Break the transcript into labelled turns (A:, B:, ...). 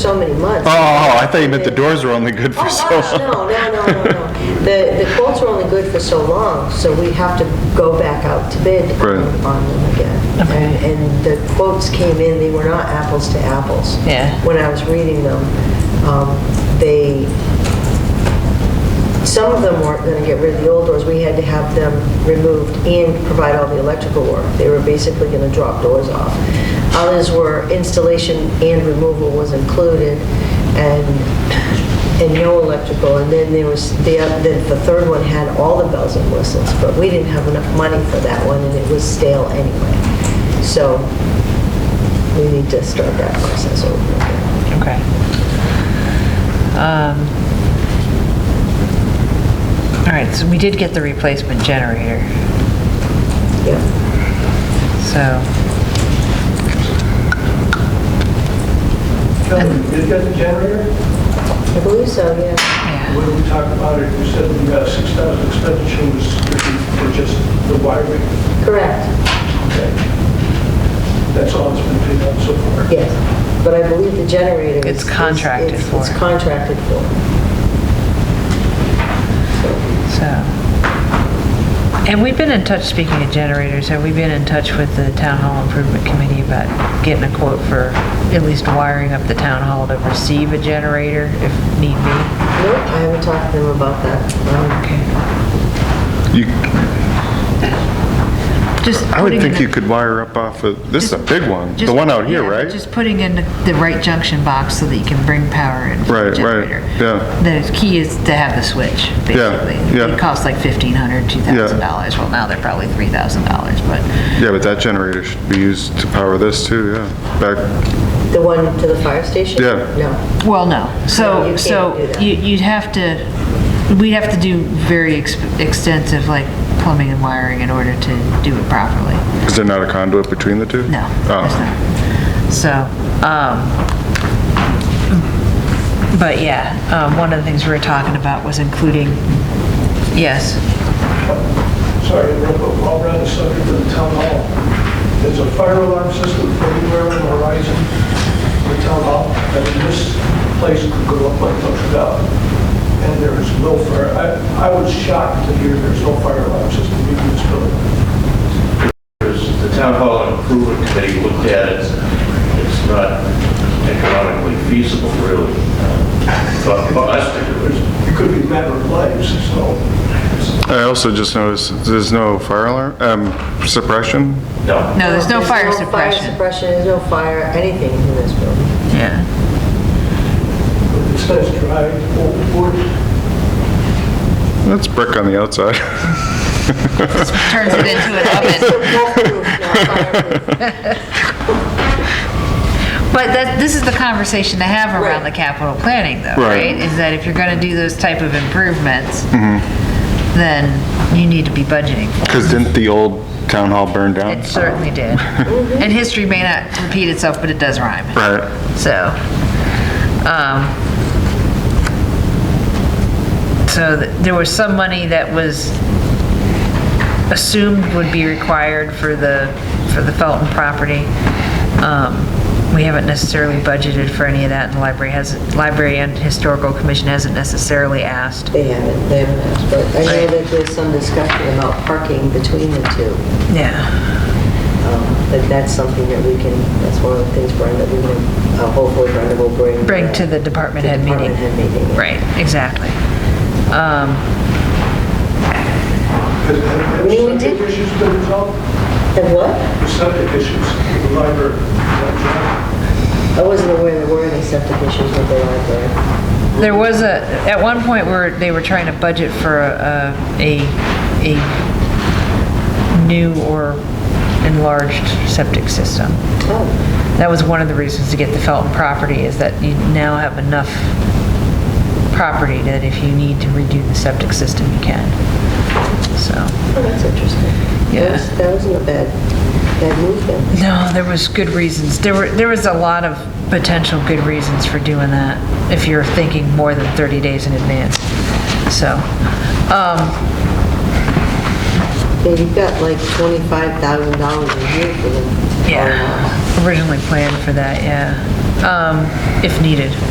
A: so many months.
B: Oh, oh, I thought you meant the doors were only good
A: Oh,
B: for so
A: gosh, no,
B: long.
A: no, no, no, no. The, the quotes are only good for so long, so we have to go back out to bid
B: Right.
A: on them again. And, and the quotes came in, they were not apples to apples.
C: Yeah.
A: When I was reading them, um, they, some of them weren't gonna get rid of the old doors, we had to have them removed and provide all the electrical work. They were basically gonna drop doors off. Others were installation and removal was included, and, and no electrical. And then there was, the, oth- the the third one had all the bells and whistles, but we didn't have enough money for that one, and it was stale anyway. So we need to start that process over again.
C: Okay. Um, All right, so we did get the replacement generator,
A: Yeah.
C: so,
D: Kelly, did you get the generator?
A: I believe so, yeah.
C: yeah.
D: When we talked about it, you said we got 6,000 expenditure was for just the wiring.
A: Correct,
D: Okay. That's all that's been paid out so far.
A: yes. But I believe the generator is...
C: It's contracted
A: is-
C: for.
A: It's contracted for.
C: So, and we've been in touch, speaking of generators, have we been in touch with the Town Hall Improvement Committee about getting a quote for at least wiring up the town hall to receive a generator if need be?
A: Nope, I haven't talked to them about that. Um,
C: Okay.
B: You-
C: Just
B: I would
C: putting
B: think
C: in
B: you
C: a-
B: could wire up off of, this is a big one, the
C: Just-
B: one out here,
C: yeah,
B: right?
C: Just putting in the right junction box so that you can bring power in for
B: Right,
C: the
B: right,
C: generator.
B: yeah.
C: The key is to have the switch, basically.
B: yeah.
C: It costs like $1,500, $2,000. Well, now they're probably $3,000, but,
B: Yeah, but that generator should be used to power this too, yeah. Back,
A: The one to the fire station?
B: Yeah.
A: No.
C: well,
A: No,
C: no.
A: you
C: So,
A: can't do
C: so
A: that.
C: you- you'd have to, we'd have to do very ex- extensive, like, plumbing and wiring in order to do it properly.
B: is there not a conduit between the two?
C: No, there's
B: Oh,
C: not. So, um, but yeah, um, one of the things we were talking about was including, yes,
D: Sorry, real quick, while we're on the subject of the town hall, there's a fire alarm system anywhere on the horizon for the town hall, and this place could go up like Notre Dame. And there is no fire, I, I was shocked to hear there's no fire alarm system in this building.
E: Because the town hall improvement committee looked at it, it's not economically feasible, really, uh, for for us to do it.
D: It could be a matter of lives, so.
B: I also just noticed, there's no fire alarm, um, suppression?
E: No.
C: no, there's no fire
A: Fire
C: suppression.
A: suppression, there's no fire, anything in this building.
C: Yeah,
D: It says dry, old wood.
B: That's brick on the outside.
C: turns it into an oven.
A: Wolf-proof, not fireproof.
C: But that, this is the conversation to have around the capital planning though,
B: Right.
C: right? Is that if you're gonna do those type of improvements, then you need to be budgeting for it.
B: Because didn't the old town hall burn down?
C: It certainly did. And history may not repeat itself, but it does rhyme.
B: Right,
C: So, um, so th- there was some money that was assumed would be required for the, for the Felton property. Um, we haven't necessarily budgeted for any of that, and the library hasn't, library and historical commission hasn't necessarily asked.
A: They haven't, they haven't asked, but I know that there's some discussion about parking between the two.
C: Yeah.
A: Um, But that's something that we can, that's one of the things Brenda, we can, uh, hopefully Brenda will bring. uh,
C: Bring to the department head meeting.
A: Department head meeting.
C: Right, exactly. Um,
D: Has- have-
A: We
D: Have
A: did-
D: septic issues been resolved?
A: And what?
D: The septic issues, the library, that
A: I wasn't aware there were any septic issues with the library.
C: There was a, at one point where they were trying to budget for a, a, a new or enlarged septic system.
A: Oh,
C: That was one of the reasons to get the Felton property, is that you now have enough property that if you need to redo the septic system, you can. So,
A: well, oh, that's interesting. That
C: Yeah.
A: was- That wasn't a bad, bad move then.
C: no, there was good reasons. There were, there was a lot of potential good reasons for doing that, if you're thinking more than 30 days in advance. So, um,
A: Yeah, you've got like $25,000 a year for them. Oh,
C: Yeah, originally planned for that, yeah. um, if needed.